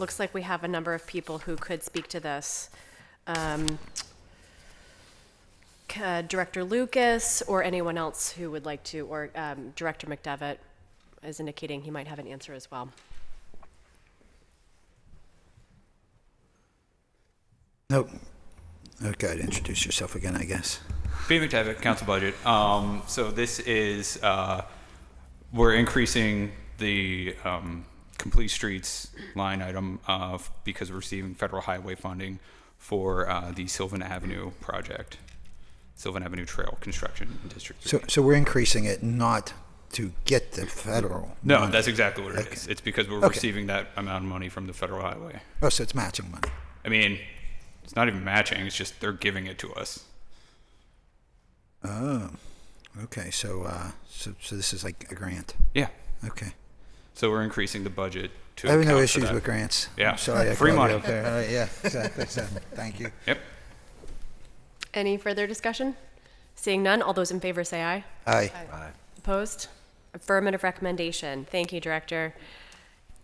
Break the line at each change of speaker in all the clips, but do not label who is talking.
Looks like we have a number of people who could speak to this. Um, c- uh, Director Lucas or anyone else who would like to, or um, Director McDevitt is indicating he might have an answer as well.
Nope. Okay, introduce yourself again, I guess.
Peter McTavish, council budget. Um, so this is, uh, we're increasing the, um, complete streets line item, uh, because we're receiving federal highway funding for, uh, the Sylvan Avenue project, Sylvan Avenue Trail Construction in District
So,
Three.
so we're increasing it not to get the federal.
No,
money.
that's exactly what it
Okay.
is. It's because we're
Okay.
receiving that amount of money from the federal highway.
Oh, so it's matching money.
I mean, it's not even matching, it's just they're giving it to us.
Oh, okay. So, uh, so, so this is like a grant.
Yeah,
Okay.
so we're increasing the budget to.
I have
account
no
for
issues
that.
with grants.
Yeah.
I'm sorry, I
Free
called you
money.
up there. All right, yeah, exactly. So, thank you.
Yep.
Any further discussion? Seeing none, all those in favor say aye.
Aye.
Opposed? Affirmative recommendation. Thank you, Director.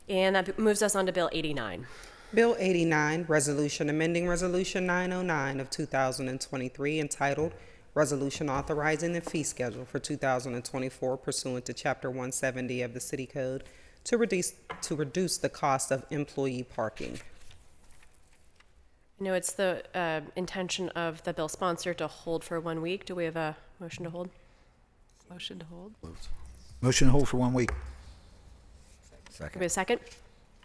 And that moves us on to Bill 89.
Bill 89, Resolution Amending Resolution 909 of 2023, entitled Resolution Authorizing the Fee Schedule for 2024 pursuant to Chapter 170 of the City Code to reduce, to reduce the cost of employee parking.
I know it's the uh, intention of the bill sponsor to hold for one week. Do we have a motion to hold? Motion to hold.
Motion to hold for one week.
Give me a second.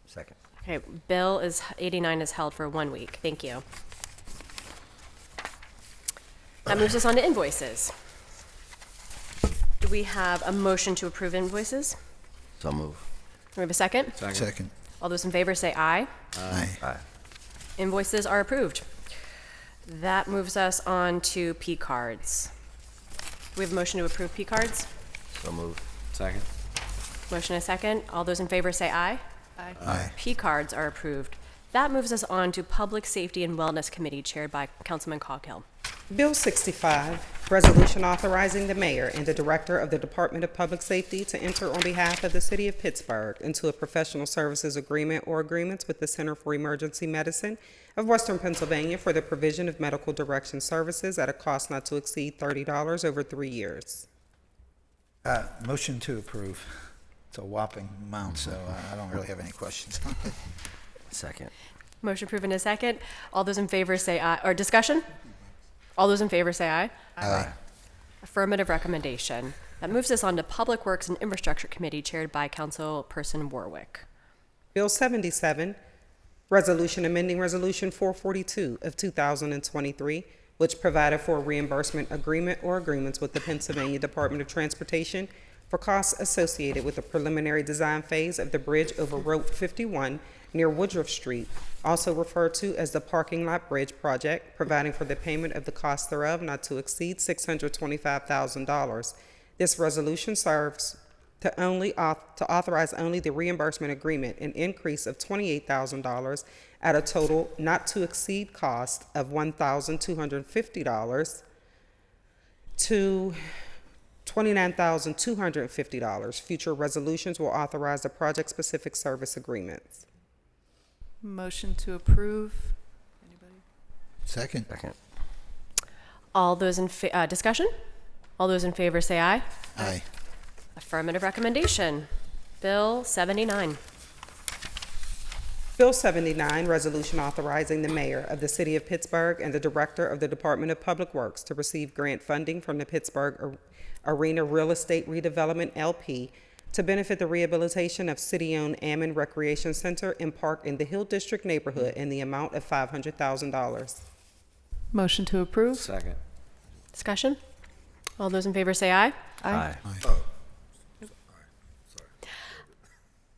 Second.
Okay, bill is 89 is held for one week. Thank you. That moves us on to invoices. Do we have a motion to approve invoices?
So move.
Do we have a second?
Second.
All those in favor say aye.
Uh,
Aye.
Aye.
Invoices are approved. That moves us on to P cards. Do we have a motion to approve P cards?
So move.
Second.
Motion a second. All those in favor say aye.
Aye.
P cards are approved. That moves us on to Public Safety and Wellness Committee chaired by Councilman Coghill.
Bill 65, Resolution Authorizing the Mayor and the Director of the Department of Public Safety to enter on behalf of the City of Pittsburgh into a professional services agreement or agreements with the Center for Emergency Medicine of Western Pennsylvania for the provision of medical direction services at a cost not to exceed $30 over three years.
Uh, motion to approve. It's a whopping amount, so uh, I don't really have any questions.
Second.
Motion approved in a second. All those in favor say aye, or discussion? All those in favor say aye.
Aye.
Affirmative recommendation. That moves us on to Public Works and Infrastructure Committee chaired by Councilperson Warwick.
Bill 77, Resolution amending Resolution 442 of 2023, which provided for a reimbursement agreement or agreements with the Pennsylvania Department of Transportation for costs associated with the preliminary design phase of the bridge over Route 51 near Woodruff Street, also referred to as the Parking Lot Bridge Project, providing for the payment of the cost thereof not to exceed $625,000. This resolution serves to only auth- to authorize only the reimbursement agreement, an increase of twenty-eight thousand dollars at a total not to exceed cost of one thousand two hundred fifty dollars to twenty-nine thousand two hundred fifty dollars. Future resolutions will authorize the project-specific service agreements.
Motion to approve. Anybody?
Second.
Second.
All those in, fa- uh, discussion? All those in favor say aye.
Aye.
Affirmative recommendation. Bill 79.
Bill 79, Resolution Authorizing the Mayor of the City of Pittsburgh and the Director of the Department of Public Works to receive grant funding from the Pittsburgh Ar- Arena Real Estate Redevelopment LP to benefit the rehabilitation of city-owned Ammon Recreation Center and Park in the Hill District neighborhood in the amount of $500,000.
Motion to approve.
Second.
Discussion? All those in favor say aye.
Aye.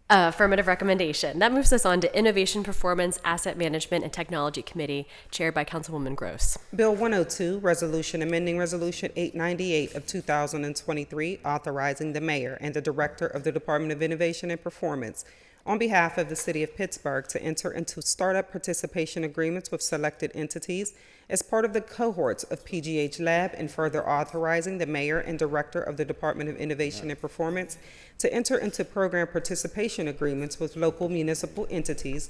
Uh, affirmative recommendation. That moves us on to Innovation, Performance, Asset Management, and Technology Committee, chaired by Councilwoman Gross.
Bill 102, Resolution amending Resolution 898 of 2023, authorizing the mayor and the director of the Department of Innovation and Performance on behalf of the city of Pittsburgh to enter into startup participation agreements with selected entities as part of the cohorts of PGH Lab and further authorizing the mayor and director of the Department of Innovation and Performance to enter into program participation agreements with local municipal entities